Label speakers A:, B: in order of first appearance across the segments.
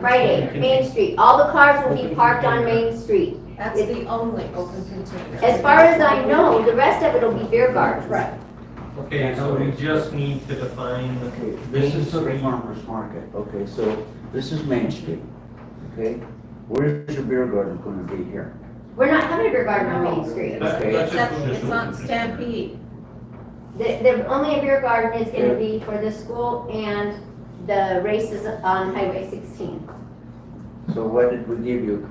A: Friday, Main Street, all the cars will be parked on Main Street.
B: That's the only open container.
A: As far as I know, the rest of it'll be beer gardens.
B: Right,
C: Okay, so we just need to define,
D: Okay,
C: This is
D: the
C: the-
D: farmer's market, okay, so this is Main Street, okay? Where's your beer garden gonna be here?
A: We're not having a beer garden on Main Street.
C: That-
D: Okay.
C: that's
B: except
C: just.
B: it's on Stampede.
A: The, the only beer garden is gonna be for the school and the races on Highway sixteen.
D: So why did we give you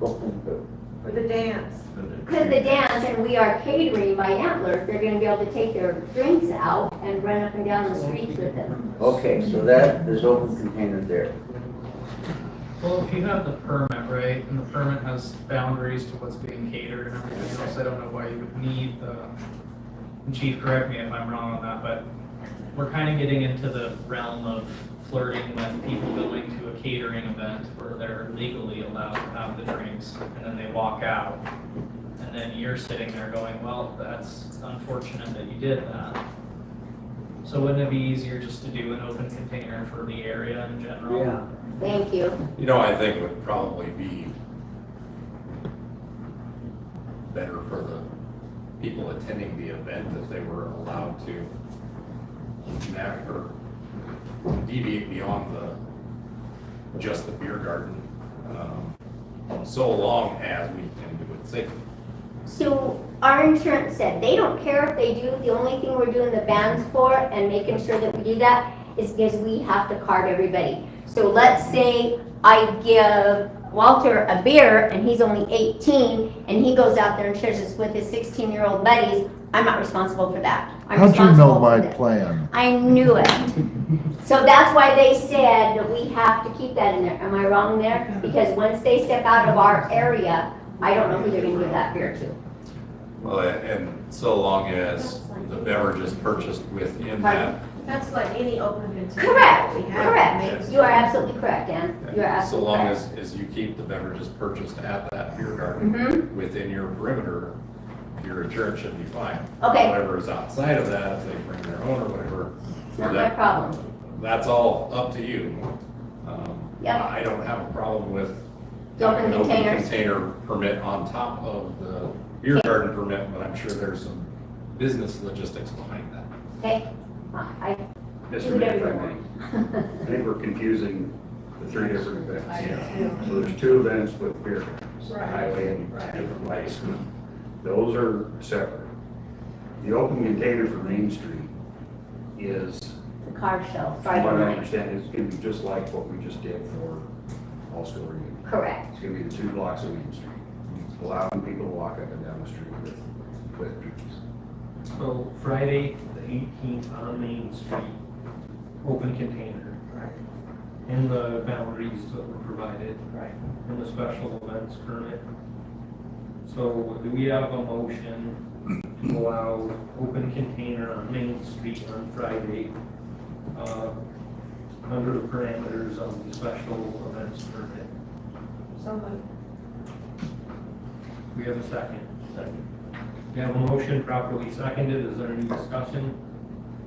D: a open,
B: For the dance.
A: Because the dance and we are catering by Antler, they're gonna be able to take their drinks out and run up and down the streets with them.
D: okay, so that, there's open container there.
E: Well, if you have the permit, right, and the permit has boundaries to what's being catered and everything else, I don't know why you would need the, and chief, correct me if I'm wrong on that, but we're kind of getting into the realm of flirting with people going to a catering event where they're legally allowed to have the drinks, and then they walk out. And then you're sitting there going, well, that's unfortunate that you did that. So wouldn't it be easier just to do an open container for the area in general?
A: Thank you.
F: You know, I think it would probably be better for the people attending the event if they were allowed to navigate or deviate beyond the, just the beer garden. um, So long as we can do it safely.
A: So our insurance said, they don't care if they do, the only thing we're doing the bans for and making sure that we do that is because we have to card everybody. So let's say I give Walter a beer and he's only eighteen and he goes out there and shares this with his sixteen-year-old buddies, I'm not responsible for that. I'm
G: How'd you
A: responsible
G: know
A: for
G: my
A: the-
G: plan?
A: I knew it. So that's why they said that we have to keep that in there. Am I wrong there? Because once they step out of our area, I don't know who they're gonna give that beer to.
F: Well, and so long as the beverage is purchased within that.
B: That's like any open container.
A: Correct,
B: we have.
A: correct. You are absolutely correct, Ann. You are
F: So
A: absolutely
F: long
A: correct.
F: as, as you keep the beverages purchased at that beer garden.
A: Mhm.
F: within your perimeter, your insurance should be fine.
A: Okay.
F: Whatever is outside of that, if they bring their own or whatever.
A: It's not my
F: that-
A: problem.
F: That's all up to you. Um,
A: Yeah.
F: I don't have a problem with.
A: The open
F: having an open
A: containers.
F: Container permit on top of the beer garden permit, but I'm sure there's some business logistics behind that.
A: Okay? Uh, I I do
H: Mr. Mayor, if I may,
A: whatever you want.
H: I think we're confusing the three different events. So there's two events with beer, gardens,
B: Right.
H: highway and
B: Right.
H: different lights. Those are separate. The open container for Main Street is,
A: The car show,
H: from what I
A: Friday night.
H: understand, is gonna be just like what we just did for All School Reunion.
A: Correct.
H: It's gonna be the two blocks of Main Street, allowing people to walk up and down the street with, with drinks.
C: So Friday, the eighteenth on Main Street, open container.
B: Right.
C: In the boundaries that were provided.
B: Right.
C: In the special events permit. So do we have a motion to allow open container on Main Street on Friday? uh, Under the parameters of the special events permit?
B: So moved.
C: We have a second. Second. We have a motion properly seconded. Is there any discussion?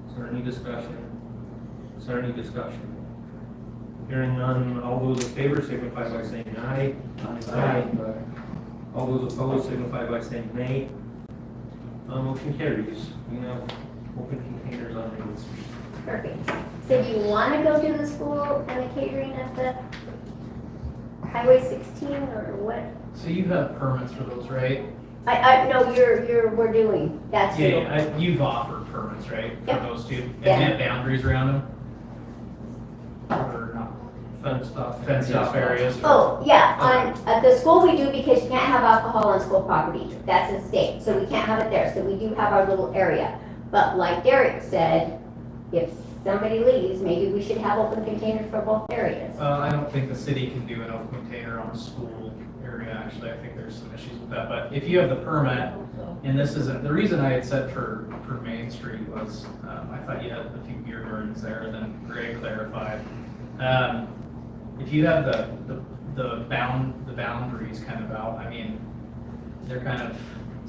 C: Is there any discussion? Is there any discussion? Hearing none, all those in favor signify by saying aye. Aye. All those opposed signify by saying nay. Uh, motion carries. We have open containers on Main Street.
A: Perfect. So do you want to go do the school and the catering at the Highway 16 or what?
E: So you have permits for those, right?
A: I, I, no, you're, you're, we're doing, that's
E: Yeah,
A: you.
E: yeah, I- you've offered permits, right, for
A: Yeah.
E: those two? And
A: Yeah.
E: have boundaries around them? Or not fenced off, fenced off areas?
A: Oh, yeah, on, at the school we do because you can't have alcohol on school property. That's a state, so we can't have it there. So we do have our little area. But like Derek said, if somebody leaves, maybe we should have open containers for both areas.
E: Uh, I don't think the city can do an open container on a school area, actually, I think there's some issues with that, but if you have the permit, and this isn't, the reason I had said for, for Main Street was, um, I thought you had a few beer gardens there, and then Greg clarified. Um, if you have the, the, the bound, the boundaries kind of out, I mean, they're kind of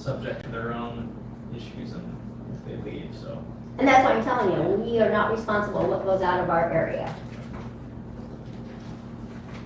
E: subject to their own issues and if they leave, so.
A: And that's what I'm telling you, we are not responsible what goes out of our area.